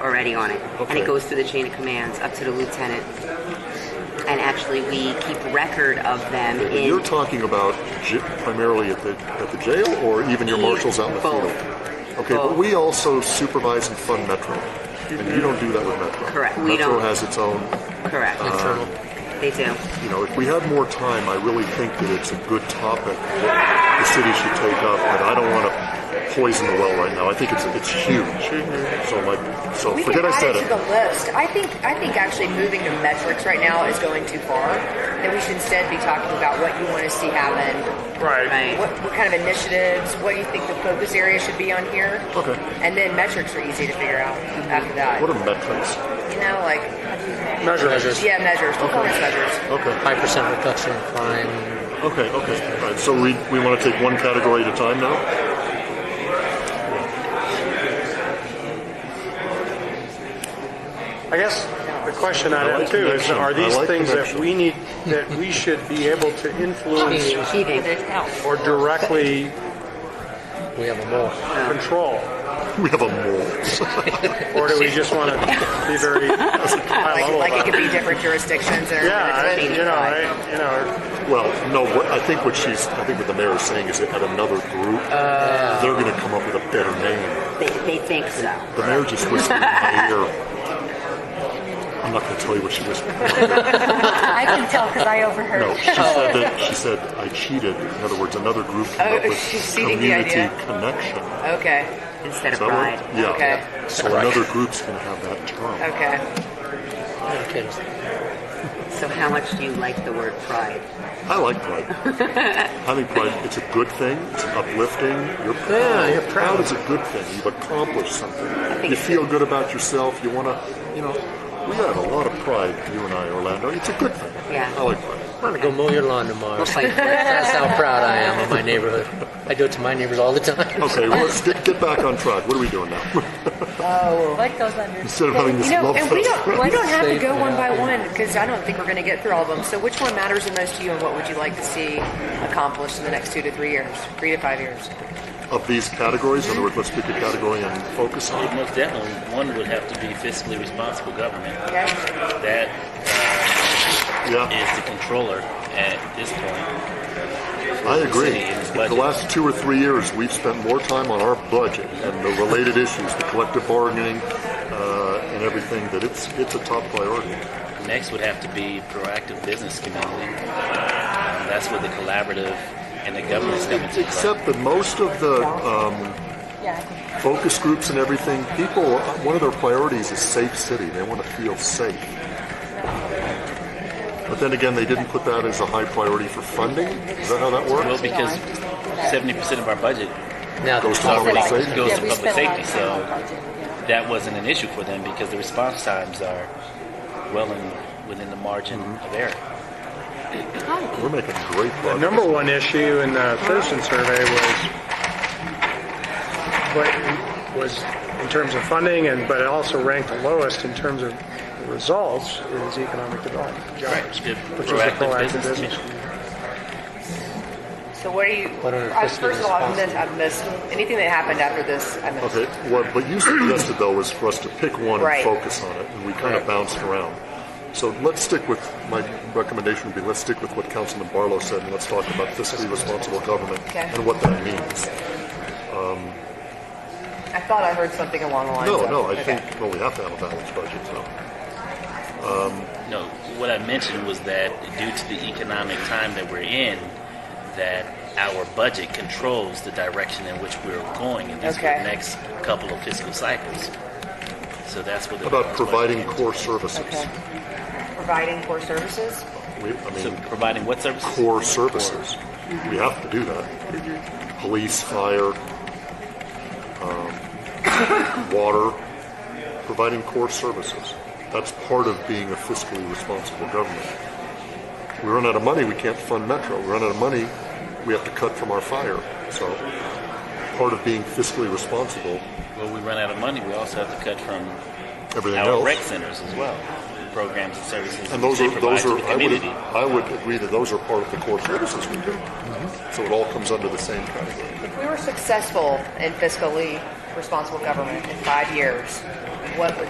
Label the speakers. Speaker 1: already on it, and
Speaker 2: Okay.
Speaker 1: it goes through the chain of commands up to the lieutenant. And actually, we keep record of them in
Speaker 2: You're talking about j- primarily at the at the jail, or even your marshals out in the
Speaker 1: Both.
Speaker 2: field. Okay,
Speaker 1: Both.
Speaker 2: but we also supervise and fund Metro, and you don't do that with Metro.
Speaker 1: Correct, we
Speaker 2: Metro
Speaker 1: don't.
Speaker 2: has its own.
Speaker 1: correct.
Speaker 2: Uh-huh.
Speaker 1: They do.
Speaker 2: You know, if we had more time, I really think that it's a good topic that the city should take up. But I don't want to poison the well right now. I think it's it's huge. So my so
Speaker 3: We
Speaker 2: forget
Speaker 3: can
Speaker 2: I
Speaker 3: add
Speaker 2: said
Speaker 3: it to the
Speaker 2: it.
Speaker 3: list. I think I think actually moving to metrics right now is going too far. That we should instead be talking about what you want to see happen,
Speaker 4: Right.
Speaker 1: Right.
Speaker 3: what, what kind of initiatives, what you think the focus area should be on here.
Speaker 2: Okay.
Speaker 3: And then metrics are easy to figure out after that.
Speaker 2: What are metrics?
Speaker 3: you know, like
Speaker 4: Measures.
Speaker 3: yeah, measures, performance measures.
Speaker 2: Okay,
Speaker 4: Five percent reduction in crime.
Speaker 2: okay, okay. All right. So we we want to take one category at a time now.
Speaker 5: I guess the question I
Speaker 2: I
Speaker 5: have
Speaker 2: like
Speaker 5: too is,
Speaker 2: connection.
Speaker 5: are these
Speaker 2: I like
Speaker 5: things that
Speaker 2: connection.
Speaker 5: we need, that we should be able to influence
Speaker 1: Cheating.
Speaker 5: or directly
Speaker 4: We have a more.
Speaker 5: control?
Speaker 2: We have a mole.
Speaker 5: Or do we just want to be very high
Speaker 3: Like,
Speaker 5: level
Speaker 3: like it
Speaker 5: about
Speaker 3: could
Speaker 5: it?
Speaker 3: be different jurisdictions or
Speaker 5: Oh, Yeah, I-
Speaker 3: different-
Speaker 5: you know, I, you know,
Speaker 2: Well, no. What, I think what she's, I think what the mayor is saying is that at another group,
Speaker 3: Uh.
Speaker 2: they're going to come up with a better name.
Speaker 1: They, they think so.
Speaker 2: The mayor just whispered in my ear. I'm not going to tell you what she whispered. no,
Speaker 6: I can tell because I overheard.
Speaker 2: she said that she said I cheated. In other words, another group came
Speaker 3: Oh,
Speaker 2: up with
Speaker 3: she's cheating the
Speaker 2: community
Speaker 3: idea.
Speaker 2: connection.
Speaker 3: Okay,
Speaker 1: Instead
Speaker 2: Is
Speaker 1: of
Speaker 2: that
Speaker 1: pride.
Speaker 2: right? Yeah.
Speaker 3: Okay.
Speaker 2: So another group's going to have that term.
Speaker 3: okay.
Speaker 4: Okay.
Speaker 1: So how much do you like the word pride?
Speaker 2: I like pride. I think pride, it's a good thing. It's uplifting. You're proud.
Speaker 4: Yeah, you're proud.
Speaker 2: is a good thing. You've accomplished something.
Speaker 1: think
Speaker 2: You
Speaker 1: so.
Speaker 2: feel good about yourself. You want to, you know, we have a lot of pride, you and I, Orlando. It's a good thing.
Speaker 1: Yeah.
Speaker 2: I like pride.
Speaker 4: I'm gonna go mow your lawn tomorrow.
Speaker 1: Like,
Speaker 4: That's how proud I am of my neighborhood. I do it to my neighbors all the time.
Speaker 2: Okay, well, let's get, get back on track. What are we doing now?
Speaker 6: What goes under?
Speaker 2: Instead of having this
Speaker 3: You know,
Speaker 2: love
Speaker 3: and we
Speaker 2: fest.
Speaker 3: don't we don't have to
Speaker 4: Safe,
Speaker 3: go one
Speaker 4: yeah.
Speaker 3: by one because I don't think we're going to get through all of them. So which one matters the most to you, and what would you like to see accomplished in the next two to three years, three to five years?
Speaker 2: Of these categories, in other words, let's pick a category and focus on
Speaker 7: Well, most definitely, one would have to be fiscally responsible government.
Speaker 3: Okay.
Speaker 7: That
Speaker 2: it. Yeah,
Speaker 7: is the controller at this point.
Speaker 2: I agree.
Speaker 7: city and its
Speaker 2: In the
Speaker 7: budget.
Speaker 2: last two or three years, we've spent more time on our budget and the related issues, the collective bargaining, uh, and everything, that it's, it's a top priority.
Speaker 7: Next would have to be proactive business community. Um, that's where the collaborative and the governance come into play.
Speaker 2: Except that most of the um,
Speaker 6: Yeah.
Speaker 2: focus groups and everything, people, one of their priorities is safe city. They want to feel safe. But then again, they didn't put that as a high priority for funding. Is that how that
Speaker 7: Well,
Speaker 2: works?
Speaker 7: because seventy percent of our budget
Speaker 4: Now
Speaker 2: Goes to
Speaker 4: the-
Speaker 2: public safety.
Speaker 7: goes
Speaker 6: Yeah,
Speaker 7: to
Speaker 6: we
Speaker 7: public
Speaker 6: spend a lot
Speaker 7: safety,
Speaker 6: of time on
Speaker 7: so
Speaker 6: budget. Yeah.
Speaker 7: that wasn't an issue for them because the response times are well in, within the margin of error.
Speaker 2: We're making great
Speaker 5: the
Speaker 2: progress.
Speaker 5: number one issue in the Thurston survey was what was in terms of funding and, but it also ranked the lowest in terms of results is economic development, jobs,
Speaker 7: The
Speaker 5: which is a
Speaker 7: proactive
Speaker 5: proactive
Speaker 7: business
Speaker 5: business.
Speaker 3: So what are you?
Speaker 4: What are
Speaker 3: I,
Speaker 4: fiscally
Speaker 3: first of all, I've missed, I've missed anything that happened after this. I missed.
Speaker 2: Okay, what, what you suggested though was for us to pick one
Speaker 3: Right.
Speaker 2: and focus on it, and we kind of bounced around. So let's stick with, my recommendation would be let's stick with what Councilman Barlow said, and let's talk about fiscally responsible government
Speaker 3: Okay.
Speaker 2: and what that means.
Speaker 3: I thought I heard something along the lines.
Speaker 2: No,
Speaker 3: of,
Speaker 2: no, I
Speaker 3: okay.
Speaker 2: think, well, we have to have a balanced budget, so.
Speaker 7: No, what I mentioned was that due to the economic time that we're in, that our budget controls the direction in which we're going in these
Speaker 3: Okay.
Speaker 7: next couple of fiscal cycles. So that's what the
Speaker 2: How about
Speaker 7: balance
Speaker 2: providing
Speaker 7: budget
Speaker 2: core services?
Speaker 3: Okay. Providing core services.
Speaker 2: We, I
Speaker 7: is. So
Speaker 2: mean,
Speaker 7: providing what services?
Speaker 2: core services. We have to do that. Police, fire, um, water, providing core services. That's part of being a fiscally responsible government. We run out of money, we can't fund Metro. We run out of money, we have to cut from our fire. So part of being fiscally responsible,
Speaker 7: Well, we run out of money. We also have to cut from
Speaker 2: everything
Speaker 7: our
Speaker 2: else.
Speaker 7: rec centers as well, programs and services.
Speaker 2: And those
Speaker 7: that
Speaker 2: are,
Speaker 7: they
Speaker 2: those
Speaker 7: provide
Speaker 2: are,
Speaker 7: to the
Speaker 2: I would,
Speaker 7: community.
Speaker 2: I would agree that those are part of the core services we do. So it all comes under the same category.
Speaker 3: If we were successful in fiscally responsible government in five years, what would